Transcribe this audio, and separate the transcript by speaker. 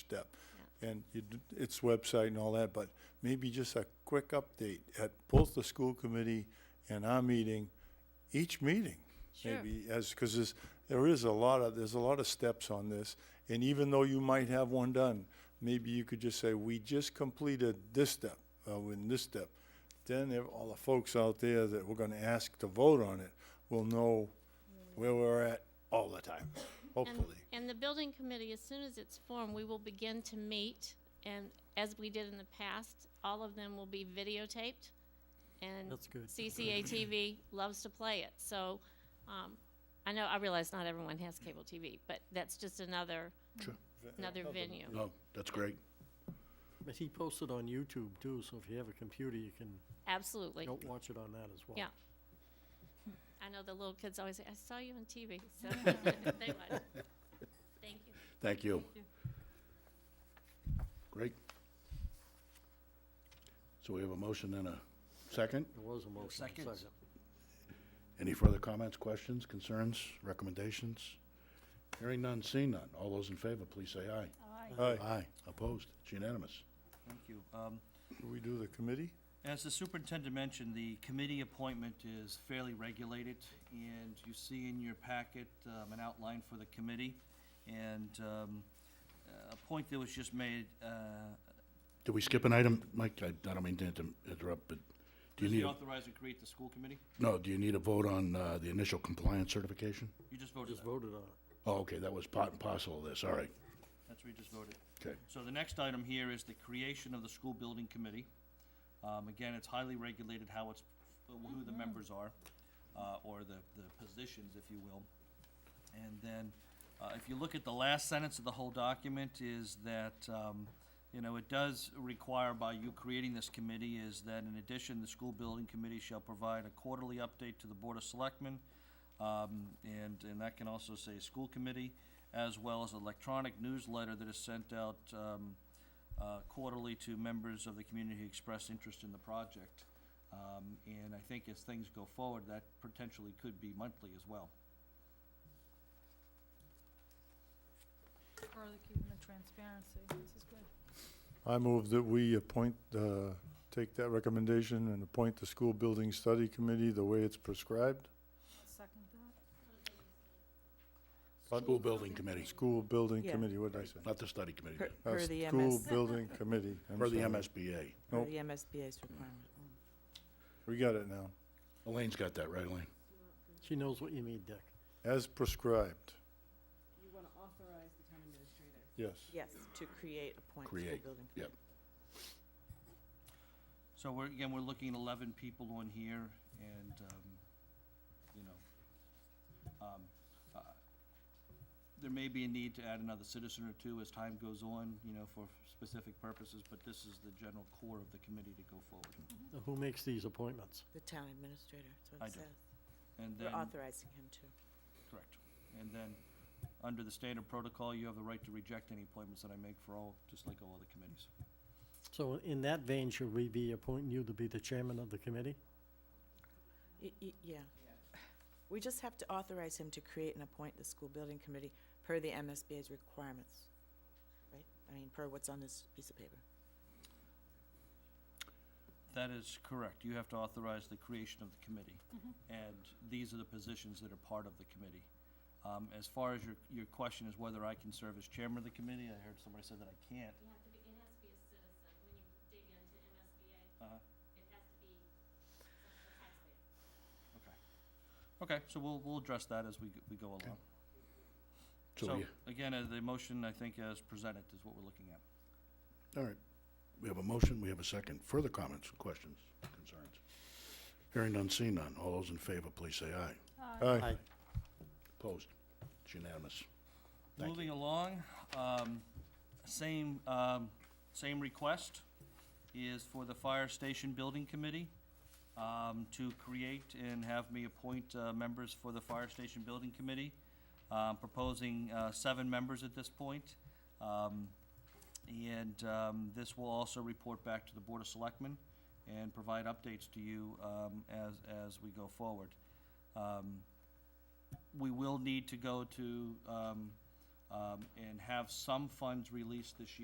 Speaker 1: step. And you d- its website and all that, but maybe just a quick update at both the school committee and our meeting, each meeting.
Speaker 2: Sure.
Speaker 1: Maybe as, because there's, there is a lot of, there's a lot of steps on this. And even though you might have one done, maybe you could just say, we just completed this step, uh, in this step. Then there- all the folks out there that we're gonna ask to vote on it will know where we're at all the time,
Speaker 2: And-
Speaker 1: hopefully.
Speaker 2: And the building committee, as soon as it's formed, we will begin to meet, and as we did in the past, all of them will be videotaped. And
Speaker 3: That's good.
Speaker 2: CCA TV loves to play it, so, um, I know, I realize not everyone has cable TV, but that's just another,
Speaker 4: Sure.
Speaker 2: another venue.
Speaker 4: Oh, that's great.
Speaker 3: But he posted on YouTube too, so if you have a computer, you can
Speaker 2: Absolutely,
Speaker 3: go watch it on that as well.
Speaker 2: yeah. I know the little kids always say, I saw you on TV, so, they would. Thank you.
Speaker 4: Thank you. Great. So we have a motion and a second.
Speaker 3: There was a motion.
Speaker 5: seconds.
Speaker 3: Second.
Speaker 4: Any further comments, questions, concerns, recommendations? Hearing none, seeing none. All those in favor, please say aye.
Speaker 1: Hi,
Speaker 4: Aye. Opposed? It's unanimous.
Speaker 5: Thank you. Um,
Speaker 1: do we do the committee?
Speaker 5: As the superintendent mentioned, the committee appointment is fairly regulated, and you see in your packet um, an outline for the committee. And um, a point that was just made, uh,
Speaker 4: Did we skip an item? Mike, I I don't mean to inter- interrupt, but
Speaker 5: does
Speaker 4: do you
Speaker 5: the
Speaker 4: need, a-
Speaker 5: authorize and create the school committee?
Speaker 4: no, do you need a vote on uh, the initial compliance certification?
Speaker 5: You just voted
Speaker 3: Just
Speaker 5: that.
Speaker 3: voted on it.
Speaker 4: Oh, okay, that was part and parcel of this, all right.
Speaker 5: That's what you just voted.
Speaker 4: Okay.
Speaker 5: So the next item here is the creation of the school building committee. Um, again, it's highly regulated how it's, who the members are, uh, or the, the positions, if you will. And then, uh, if you look at the last sentence of the whole document is that, um, you know, it does require by you creating this committee is that in addition, the school building committee shall provide a quarterly update to the Board of Selectmen. Um, and, and that can also say school committee, as well as electronic newsletter that is sent out, um, uh, quarterly to members of the community who express interest in the project. Um, and I think as things go forward, that potentially could be monthly as well.
Speaker 6: further keeping the transparency. This is good.
Speaker 1: I move that we appoint, uh, take that recommendation and appoint the school building study committee the way it's prescribed.
Speaker 6: I'll second that.
Speaker 4: School building committee,
Speaker 1: School building
Speaker 7: Yeah.
Speaker 1: committee, what did I say?
Speaker 4: not the study committee,
Speaker 7: Per,
Speaker 1: Uh,
Speaker 7: per the
Speaker 1: School
Speaker 7: MS,
Speaker 1: building committee. I'm
Speaker 4: for the
Speaker 1: sorry.
Speaker 4: MSBA.
Speaker 7: per
Speaker 1: Nope.
Speaker 7: the MSBA's requirement. Mm.
Speaker 1: We got it now.
Speaker 4: Elaine's got that, right, Elaine?
Speaker 3: She knows what you mean, Dick.
Speaker 1: As prescribed,
Speaker 8: You want to authorize the town administrator.
Speaker 1: yes.
Speaker 7: Yes, to create a point school
Speaker 4: Create,
Speaker 7: building.
Speaker 4: yep.
Speaker 5: So we're, again, we're looking at eleven people on here and, um, you know, um, uh, there may be a need to add another citizen or two as time goes on, you know, for specific purposes, but this is the general core of the committee to go forward.
Speaker 3: Now, Who makes these appointments?
Speaker 7: The town administrator, that's
Speaker 5: I
Speaker 7: what it
Speaker 5: do.
Speaker 7: says.
Speaker 5: And
Speaker 7: We're
Speaker 5: then,
Speaker 7: authorizing him to.
Speaker 5: correct. And then, under the standard protocol, you have the right to reject any appointments that I make for all, just like all other committees.
Speaker 3: So in that vein, should we be appointing you to be the chairman of the committee?
Speaker 7: Y- y- Yeah. We just have to authorize him to create and appoint the school building committee per the MSBA's requirements, right? I mean, per what's on this piece of paper.
Speaker 5: That is correct. You have to authorize the creation of the committee. And these are the positions that are part of the committee. Um, as far as your, your question is whether I can serve as chairman of the committee, I heard somebody say that I can't.
Speaker 2: You have to be, it has to be a citizen, when you dig into MSBA,
Speaker 5: Uh-huh.
Speaker 2: it has to be a taxpayer.
Speaker 5: Okay, so we'll, we'll address that as we, g- we go along.
Speaker 4: So,
Speaker 5: So,
Speaker 4: yeah,
Speaker 5: again, uh, the motion, I think, as presented is what we're looking at.
Speaker 4: all right. We have a motion, we have a second. Further comments, questions, concerns? Hearing none, seeing none. All those in favor, please say aye.
Speaker 1: Aye.
Speaker 4: Opposed? It's unanimous. Thank you.
Speaker 5: Moving along, um, same, um, same request is for the Fire Station Building Committee, um, to create and have me appoint, uh, members for the Fire Station Building Committee. Um, proposing, uh, seven members at this point. Um, and, um, this will also report back to the Board of Selectmen and provide updates to you, um, as, as we go forward. Um, we will need to go to, um, um, and have some funds released this year.